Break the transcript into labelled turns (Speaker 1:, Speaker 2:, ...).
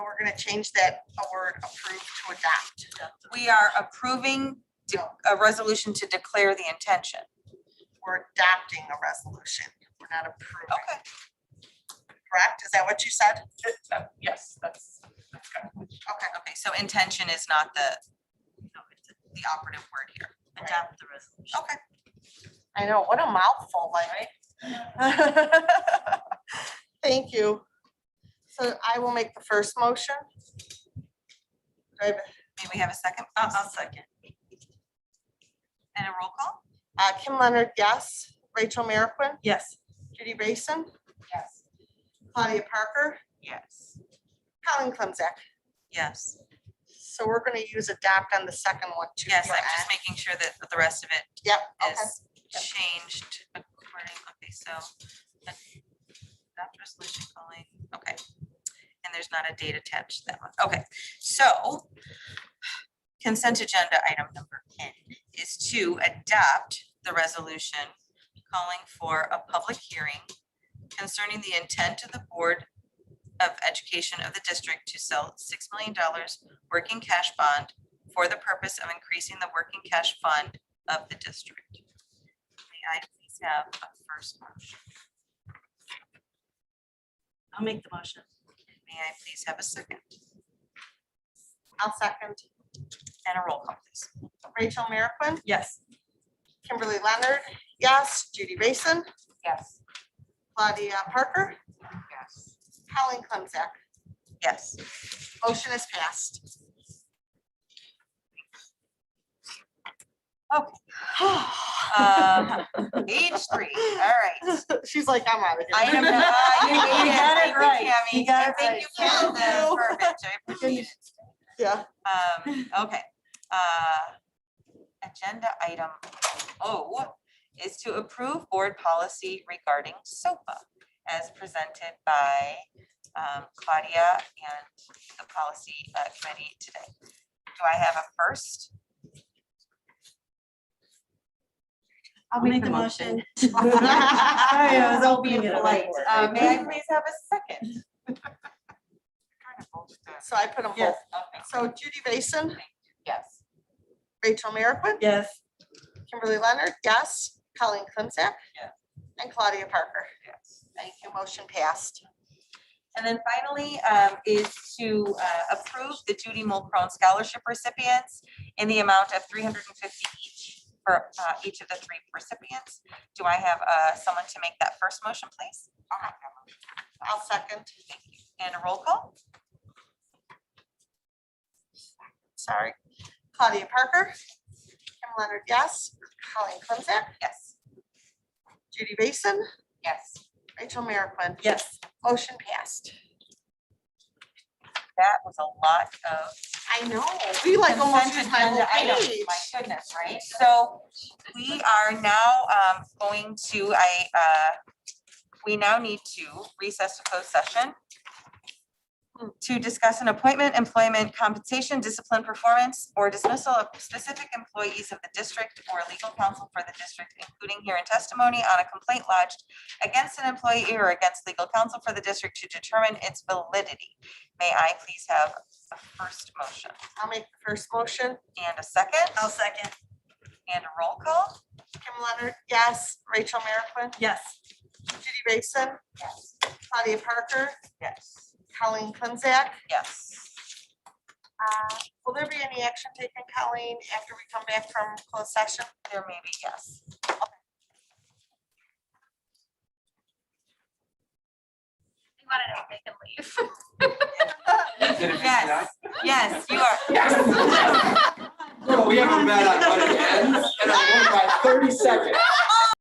Speaker 1: gonna change that word approved to adopt.
Speaker 2: We are approving de- a resolution to declare the intention.
Speaker 1: We're adopting a resolution. We're not approving,
Speaker 2: Okay,
Speaker 1: correct? Is that what you said?
Speaker 3: Yes, that's, that's good.
Speaker 1: Okay.
Speaker 2: okay, so intention is not the, the operative word here. um,
Speaker 4: adopt the resolution.
Speaker 2: Okay.
Speaker 1: I know, what a mouthful, like. Thank you. So I will make the first motion. Do I have a-
Speaker 2: May we have a second? I'll, I'll second. And a roll call?
Speaker 1: uh, Kim Leonard, yes. Rachel Merrickwin,
Speaker 2: Yes.
Speaker 1: Judy Grayson,
Speaker 3: Yes.
Speaker 1: Claudia Parker,
Speaker 2: Yes.
Speaker 1: Colin Clemzak.
Speaker 2: Yes,
Speaker 1: So we're gonna use adopt on the second one too.
Speaker 2: yes,
Speaker 1: for
Speaker 2: I'm
Speaker 1: act.
Speaker 2: just making sure that the rest of it
Speaker 1: Yep, okay.
Speaker 2: is changed according, okay, so. that that resolution calling, okay. And there's not a date attached to that one, okay, so. Consent agenda item number N is to adopt the resolution calling for a public hearing. Concerning the intent of the Board of Education of the district to sell six million dollars working cash bond. For the purpose of increasing the working cash fund of the district. May I please have a first motion?
Speaker 4: I'll make the motion.
Speaker 2: May I please have a second
Speaker 1: I'll second.
Speaker 2: and a roll call, please?
Speaker 1: Rachel Merrickwin,
Speaker 2: Yes.
Speaker 1: Kimberly Leonard, yes. Judy Grayson,
Speaker 3: Yes.
Speaker 1: Claudia Parker,
Speaker 3: Yes.
Speaker 1: Colin Clemzak.
Speaker 2: Yes.
Speaker 1: Motion is passed.
Speaker 2: Um, Page three, all right.
Speaker 1: She's like, I'm out of here.
Speaker 2: Item, uh, you
Speaker 4: You
Speaker 2: made it. Thank you, Tammy.
Speaker 4: got it right. You got
Speaker 2: And
Speaker 4: it
Speaker 2: Thank
Speaker 1: right.
Speaker 2: you
Speaker 1: Thank
Speaker 2: for the
Speaker 1: you.
Speaker 2: verbiage, I appreciate it.
Speaker 1: Yeah.
Speaker 2: Um, okay, uh, agenda item O is to approve board policy regarding SOPA as presented by um, Claudia and the policy uh, committee today. Do I have a first?
Speaker 4: I'll make the motion.
Speaker 1: Sorry,
Speaker 4: I was opening it up.
Speaker 2: Uh, may I please have a second?
Speaker 1: So I put them both.
Speaker 2: Yes, okay.
Speaker 1: So Judy Grayson,
Speaker 3: Yes.
Speaker 1: Rachel Merrickwin,
Speaker 4: Yes.
Speaker 1: Kimberly Leonard, yes. Colin Clemzak.
Speaker 2: Yeah.
Speaker 1: And Claudia Parker.
Speaker 2: Yes.
Speaker 1: Thank you. Motion passed.
Speaker 2: And then finally, um, is to, uh, approve the Judy Mulcrone Scholarship recipients in the amount of three hundred and fifty each for, uh, each of the three recipients. Do I have, uh, someone to make that first motion, please?
Speaker 1: I'll second.
Speaker 2: Thank you. And a roll call?
Speaker 1: Sorry. Claudia Parker, Kim Leonard, yes. Colin Clemzak,
Speaker 2: Yes.
Speaker 1: Judy Grayson,
Speaker 2: Yes.
Speaker 1: Rachel Merrickwin.
Speaker 4: Yes.
Speaker 1: Motion passed.
Speaker 2: That was a lot of
Speaker 1: I know. We like almost
Speaker 2: Consent
Speaker 1: used my whole
Speaker 2: agenda items,
Speaker 1: page.
Speaker 2: My goodness, right? So we are now um, going to, I, uh, we now need to recess to closed session to discuss an appointment, employment, compensation, discipline, performance, or dismissal of specific employees of the district or legal counsel for the district, including hearing testimony on a complaint lodged against an employee or against legal counsel for the district to determine its validity. May I please have a first motion?
Speaker 1: I'll make the first motion.
Speaker 2: And a second,
Speaker 4: I'll second.
Speaker 2: and a roll call?
Speaker 1: Kim Leonard, yes. Rachel Merrickwin,
Speaker 4: Yes.
Speaker 1: Judy Grayson,
Speaker 2: Yes.
Speaker 1: Claudia Parker,
Speaker 2: Yes.
Speaker 1: Colleen Clemzak.
Speaker 2: Yes.
Speaker 1: Uh, Will there be any action taken, Colleen, after we come back from closed session?
Speaker 2: There may be yes.
Speaker 5: We want to know if they can leave.
Speaker 2: Yes, yes, you are.
Speaker 6: Girl, we haven't met on one hand, and I won by thirty seconds.